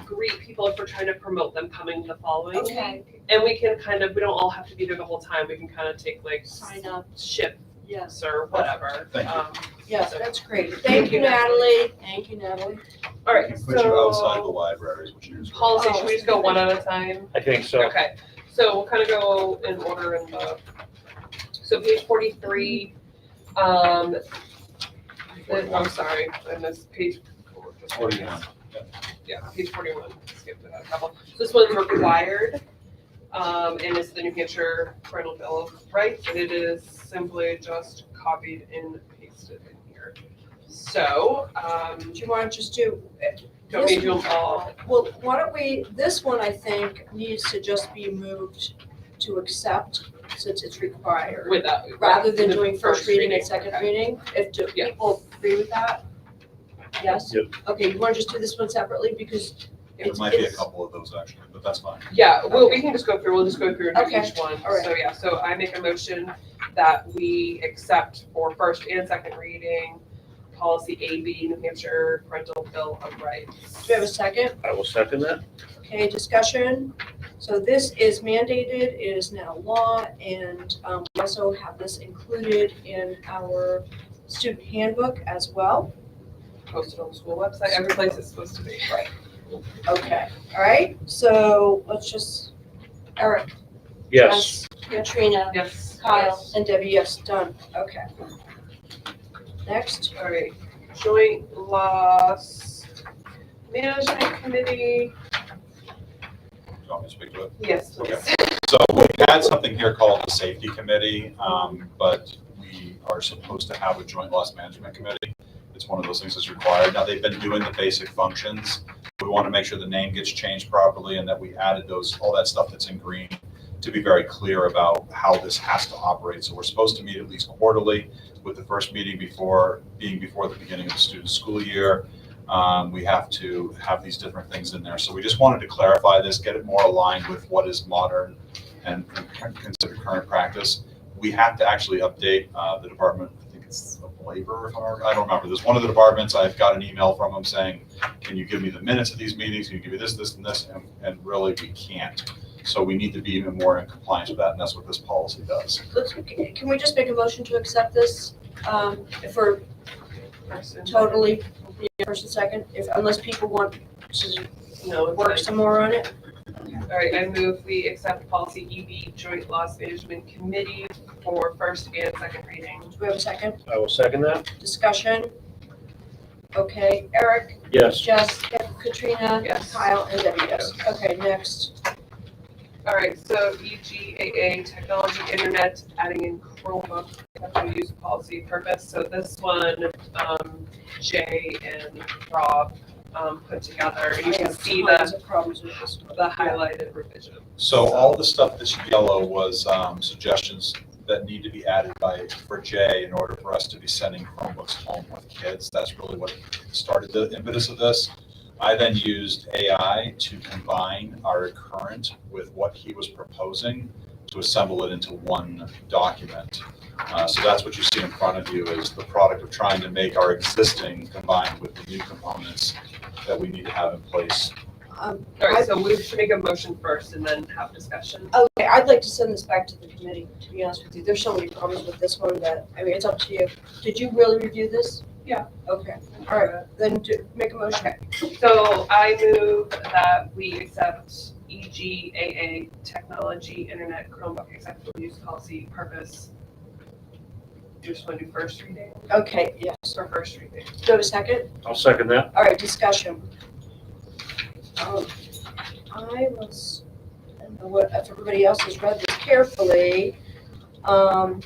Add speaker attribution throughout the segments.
Speaker 1: greet people if we're trying to promote them coming the following.
Speaker 2: Okay,
Speaker 1: And we can kind of, we don't all have to be there the whole time, we can kind of take like
Speaker 2: sign up,
Speaker 1: shifts
Speaker 2: yes,
Speaker 1: or whatever.
Speaker 3: Thank you.
Speaker 1: Um,
Speaker 2: yes, that's great. Thank you, Natalie, thank you, Natalie.
Speaker 1: All
Speaker 3: We
Speaker 1: right,
Speaker 3: can Put you outside the
Speaker 1: so
Speaker 3: library, which is.
Speaker 1: policy, should we just go one at a time?
Speaker 4: I think so.
Speaker 1: Okay, so we'll kind of go in order in the, so page forty-three, um, the- I'm sorry, I missed page.
Speaker 3: Forty-one.
Speaker 1: Yeah, page forty-one, skipped a couple. So This one's required, um, and it's the New Hampshire Parental Bill of Rights, and it is simply just copied and pasted in here. So, um,
Speaker 2: Do you want to just do,
Speaker 1: don't need to involve,
Speaker 2: well, why don't we, this one, I think, needs to just be moved to accept since it's required.
Speaker 1: with that.
Speaker 2: Rather than
Speaker 1: the
Speaker 2: doing first reading and second reading, if do
Speaker 1: Yeah.
Speaker 2: people agree with that? Yes?
Speaker 4: Yep.
Speaker 2: Okay, you want to just do this one separately because
Speaker 3: There
Speaker 2: it's,
Speaker 3: might be a
Speaker 2: it's,
Speaker 3: couple of those actually, but that's fine.
Speaker 1: Yeah, well, we can just go through, we'll just go through and do
Speaker 2: Okay,
Speaker 1: each one.
Speaker 2: all right.
Speaker 1: So, yeah, so I make a motion that we accept for first and second reading, policy AB, New Hampshire Parental Bill of
Speaker 2: do
Speaker 1: Rights.
Speaker 2: we have a second?
Speaker 4: I will second that.
Speaker 2: Okay, discussion. So this is mandated, it is now law, and um, we also have this included in our student handbook as well.
Speaker 1: Posted on the school website, every place it's supposed to be. Right.
Speaker 2: Okay, all right, so let's just, Eric.
Speaker 4: Yes.
Speaker 2: Katrina,
Speaker 1: Yes.
Speaker 2: Kyle, and Debbie, yes, done, okay. Next,
Speaker 1: All right, joint loss management committee,
Speaker 3: Do you want me to speak to it?
Speaker 1: yes, please.
Speaker 3: So we had something here called the safety committee, um, but we are supposed to have a joint loss management committee. It's one of those things that's required. Now, they've been doing the basic functions. We want to make sure the name gets changed properly and that we added those, all that stuff that's in green to be very clear about how this has to operate. So we're supposed to meet at least quarterly with the first meeting before, being before the beginning of the student school year. Um, we have to have these different things in there. So we just wanted to clarify this, get it more aligned with what is modern and and consider current practice. We have to actually update uh, the Department, I think it's of Labor, if I remember- I don't remember. There's one of the departments, I've got an email from them saying, can you give me the minutes of these meetings? Can you give me this, this, and this? And- And really, we can't. So we need to be even more in compliance with that, and that's what this policy does.
Speaker 2: let's, can we just make a motion to accept this? Um, If we're
Speaker 1: Person.
Speaker 2: totally, yeah, first and second, if, unless people want to
Speaker 1: No, it's
Speaker 2: work
Speaker 1: fine.
Speaker 2: some more on it?
Speaker 1: All right, I move we accept policy EB, joint loss management committee for first and second reading.
Speaker 2: Do we have a second?
Speaker 4: I will second that.
Speaker 2: Discussion? Okay, Eric,
Speaker 4: Yes.
Speaker 2: Jess, Katrina,
Speaker 1: Yes.
Speaker 2: Kyle, and Debbie, yes. Okay, next.
Speaker 1: All right, so E EGAA, technology, internet, adding in Chromebook, technical use policy purpose. So this one, um, Jay and Rob, um, put together. And you can see the,
Speaker 2: Tons of problems with this one.
Speaker 1: the highlighted revision.
Speaker 3: So all the stuff that's yellow was um, suggestions that need to be added by, for Jay in order for us to be sending Chromebooks home with kids. That's really what started the impetus of this. I then used AI to combine our current with what he was proposing to assemble it into one document. Uh, So that's what you see in front of you is the product of trying to make our existing combined with the new components that we need to have in place.
Speaker 2: Um,
Speaker 1: All right, so we should make a motion first and then have discussion.
Speaker 2: Okay, I'd like to send this back to the committee, to be honest with you. There's so many problems with this one that, I mean, it's up to you. Did you really review this?
Speaker 1: Yeah.
Speaker 2: Okay, all right, then do, make a motion.
Speaker 1: So I move that we accept E EGAA, technology, internet, Chromebook, acceptable use policy purpose. Do you just want to do first reading
Speaker 2: Okay, yes.
Speaker 1: or first reading?
Speaker 2: Do we have a second?
Speaker 4: I'll second that.
Speaker 2: All right, discussion. Um, I was, I don't know what, if everybody else has read this carefully, um.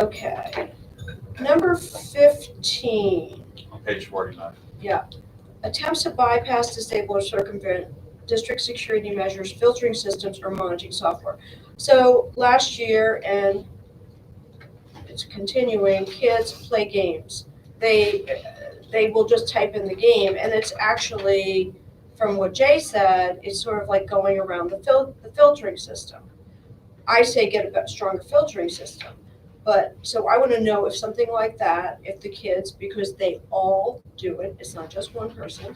Speaker 2: Okay, number fifteen,
Speaker 3: On page 49.
Speaker 2: attempts to bypass, disable, or circumvent district security measures, filtering systems, or monitoring software. So last year, and it's continuing, kids play games. They, uh, they will just type in the game, and it's actually, from what Jay said, it's sort of like going around the fil- the filtering system. I say get a bit stronger filtering system. But, so I wanna know if something like that, if the kids, because they all do it, it's not just one person,